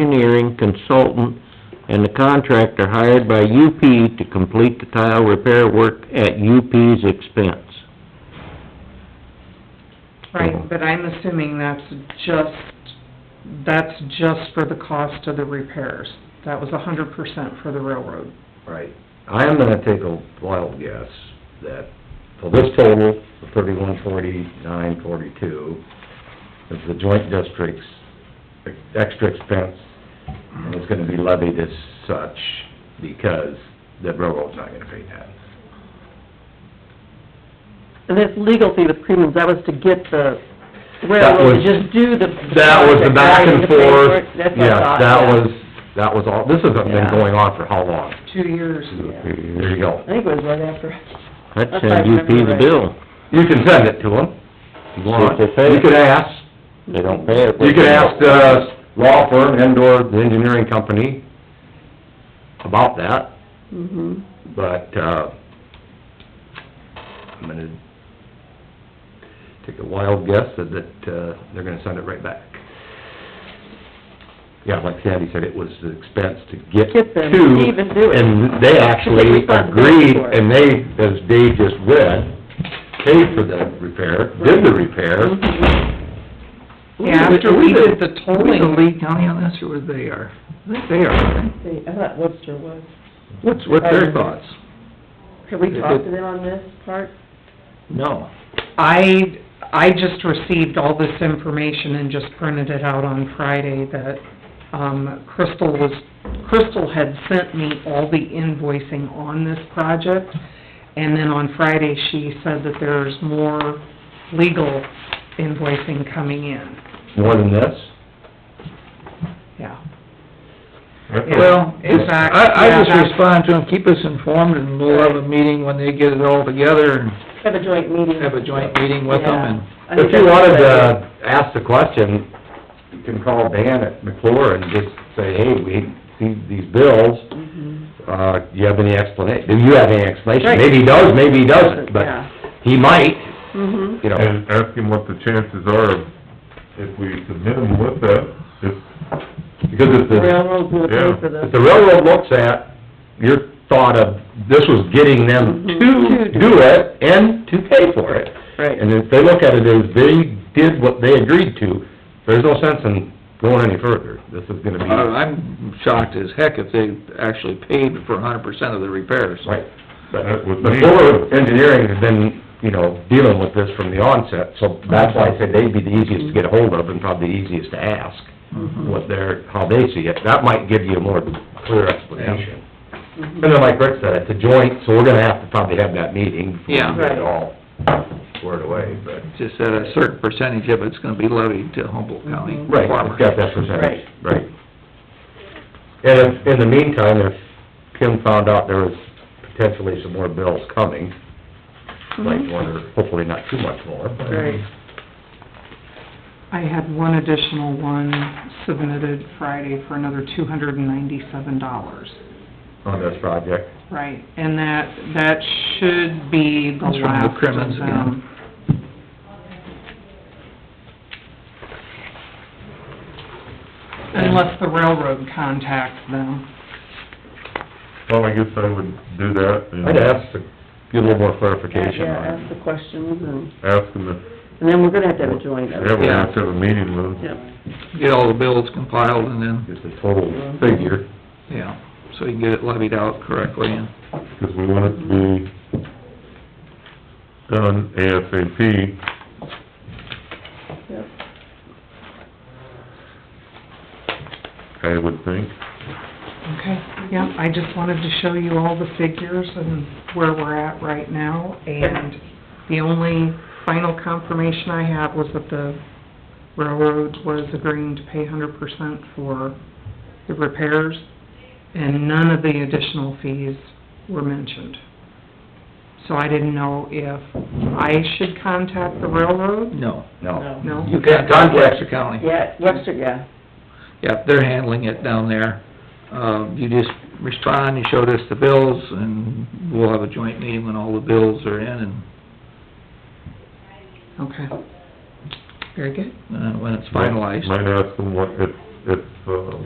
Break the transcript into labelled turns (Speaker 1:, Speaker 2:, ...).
Speaker 1: engineering consultant and the contractor hired by UP to complete the tile repair work at UP's expense.
Speaker 2: Right, but I'm assuming that's just, that's just for the cost of the repairs. That was a hundred percent for the railroad.
Speaker 3: Right. I am gonna take a wild guess that, so this total, the thirty-one forty-nine forty-two, is the joint district's extra expense, and it's gonna be levied as such because the railroad's not gonna pay that.
Speaker 4: And this legal fee with Creedman's, that was to get the
Speaker 3: That
Speaker 4: railroad to
Speaker 3: was-
Speaker 4: just do the...
Speaker 3: That was the back and
Speaker 4: project, right, to
Speaker 3: forth,
Speaker 4: pay for it. That's what I
Speaker 3: yes,
Speaker 4: thought,
Speaker 3: that
Speaker 4: yeah.
Speaker 3: was, that was all, this has been
Speaker 4: Yeah.
Speaker 3: going on for how long?
Speaker 2: Two years.
Speaker 3: There you go.
Speaker 4: I think it was right after,
Speaker 1: I'd
Speaker 4: If I
Speaker 1: send UP
Speaker 4: remember
Speaker 1: the
Speaker 4: right.
Speaker 1: bill.
Speaker 3: You can send it to them. if you want.
Speaker 1: See if they pay it.
Speaker 3: You could ask,
Speaker 1: They don't pay it.
Speaker 3: You could ask the law firm and or the engineering company about that,
Speaker 4: mhm.
Speaker 3: but, uh, I'm gonna take a wild guess that, that, uh, they're gonna send it right back. Yeah, like Sandy said, it was the expense to get
Speaker 4: Get them
Speaker 3: to,
Speaker 4: to even do it.
Speaker 3: And they actually
Speaker 4: responsibility
Speaker 3: agreed,
Speaker 4: for it.
Speaker 3: and they, as Dave just read, paid for the repair, did the repair,
Speaker 4: Mm-hmm.
Speaker 2: Yeah, after we did the
Speaker 5: Was it
Speaker 2: tolling,
Speaker 5: Lee County on this, or they are? I think they are, aren't
Speaker 4: See, I thought Webster was.
Speaker 5: they? What's, what's
Speaker 4: Um,
Speaker 5: their thoughts?
Speaker 4: Have we talked to them on this part?
Speaker 5: No.
Speaker 2: I, I just received all this information and just printed it out on Friday that, um, Crystal was, Crystal had sent me all the invoicing on this project. And then on Friday, she said that there's more legal invoicing coming in,
Speaker 3: more than this.
Speaker 2: yeah.
Speaker 5: Well,
Speaker 2: In
Speaker 5: it's,
Speaker 2: fact,
Speaker 5: I, I
Speaker 2: yeah,
Speaker 5: just
Speaker 2: that's-
Speaker 5: respond to them, keep us informed, and we'll have a meeting when they get it all together, and
Speaker 4: Have a joint meeting.
Speaker 5: have a joint meeting with them, and...
Speaker 4: Yeah. I think
Speaker 3: If you
Speaker 4: that's
Speaker 3: wanted
Speaker 4: what I
Speaker 3: to ask the question, you can call Dan at McClure and just say, hey, we see these bills,
Speaker 4: did. Mhm.
Speaker 3: uh, do you have any explanation? Do you have any explanation?
Speaker 4: Right.
Speaker 3: Maybe he does, maybe he doesn't, but
Speaker 4: Yeah.
Speaker 3: he might,
Speaker 4: Mhm.
Speaker 3: you know.
Speaker 6: And ask him what the chances are of if we submit him with that, if,
Speaker 3: Because if
Speaker 4: The
Speaker 3: the,
Speaker 4: railroad will
Speaker 6: Yeah.
Speaker 4: pay for
Speaker 3: if
Speaker 4: the,
Speaker 3: the railroad looks at your thought of, this was getting them Mm-hmm. to do it and to pay for it.
Speaker 4: Right.
Speaker 3: And if they look at it as they did what they agreed to, there's no sense in going any further. This is gonna be,
Speaker 5: Uh, I'm shocked as heck if they actually paid for a hundred percent of the repairs.
Speaker 3: right.
Speaker 6: that was me.
Speaker 3: Before engineering has been, you know, dealing with this from the onset, so that's why I said they'd be the easiest to get a hold of and probably the easiest to ask what their, how they see it. That might give you a more clear explanation. And then like Rick said, it's a joint, so we're gonna have to probably have that meeting before we get it
Speaker 4: Yeah.
Speaker 3: all squared away, but...
Speaker 5: Just that a certain percentage of it's gonna be levied to Humboldt County
Speaker 3: Right, it's got that percentage, right. And if, in the meantime, if Kim found out there was potentially some more bills coming, like one or, hopefully not too much more, but...
Speaker 4: right.
Speaker 2: I had one additional one submitted Friday for another two hundred and ninety-seven dollars.
Speaker 3: on this project.
Speaker 2: Right, and that, that should be the
Speaker 5: That's from the
Speaker 2: last of
Speaker 5: Crimmins again.
Speaker 2: them. Unless the railroad contacts them.
Speaker 6: Well, I guess I would do that and
Speaker 3: I'd ask to get a little more clarification
Speaker 4: Yeah,
Speaker 3: on
Speaker 4: ask
Speaker 3: it.
Speaker 4: the questions, and,
Speaker 6: ask him if,
Speaker 4: and then we're gonna have to have a joint.
Speaker 6: yeah, we have to have a meeting with him.
Speaker 4: Yep.
Speaker 5: Get all the bills compiled and then,
Speaker 3: Just a total figure.
Speaker 5: yeah, so you can get it levied out correctly and...
Speaker 6: Because we want it to be done ASAP.
Speaker 4: Yep.
Speaker 6: I would think.
Speaker 2: Okay, yeah, I just wanted to show you all the figures and where we're at right now, and the only final confirmation I had was that the railroad was agreeing to pay hundred percent for the repairs, and none of the additional fees were mentioned. So I didn't know if I should contact the railroad,
Speaker 5: No.
Speaker 3: No.
Speaker 2: no?
Speaker 5: You can't contact the county.
Speaker 4: Yeah, Webster, yeah.
Speaker 5: Yeah, they're handling it down there. Uh, you just respond, you showed us the bills, and we'll have a joint meeting when all the bills are in, and,
Speaker 2: Okay. Very good.
Speaker 5: uh when it's finalized.
Speaker 6: Might ask him what, if, if, uh,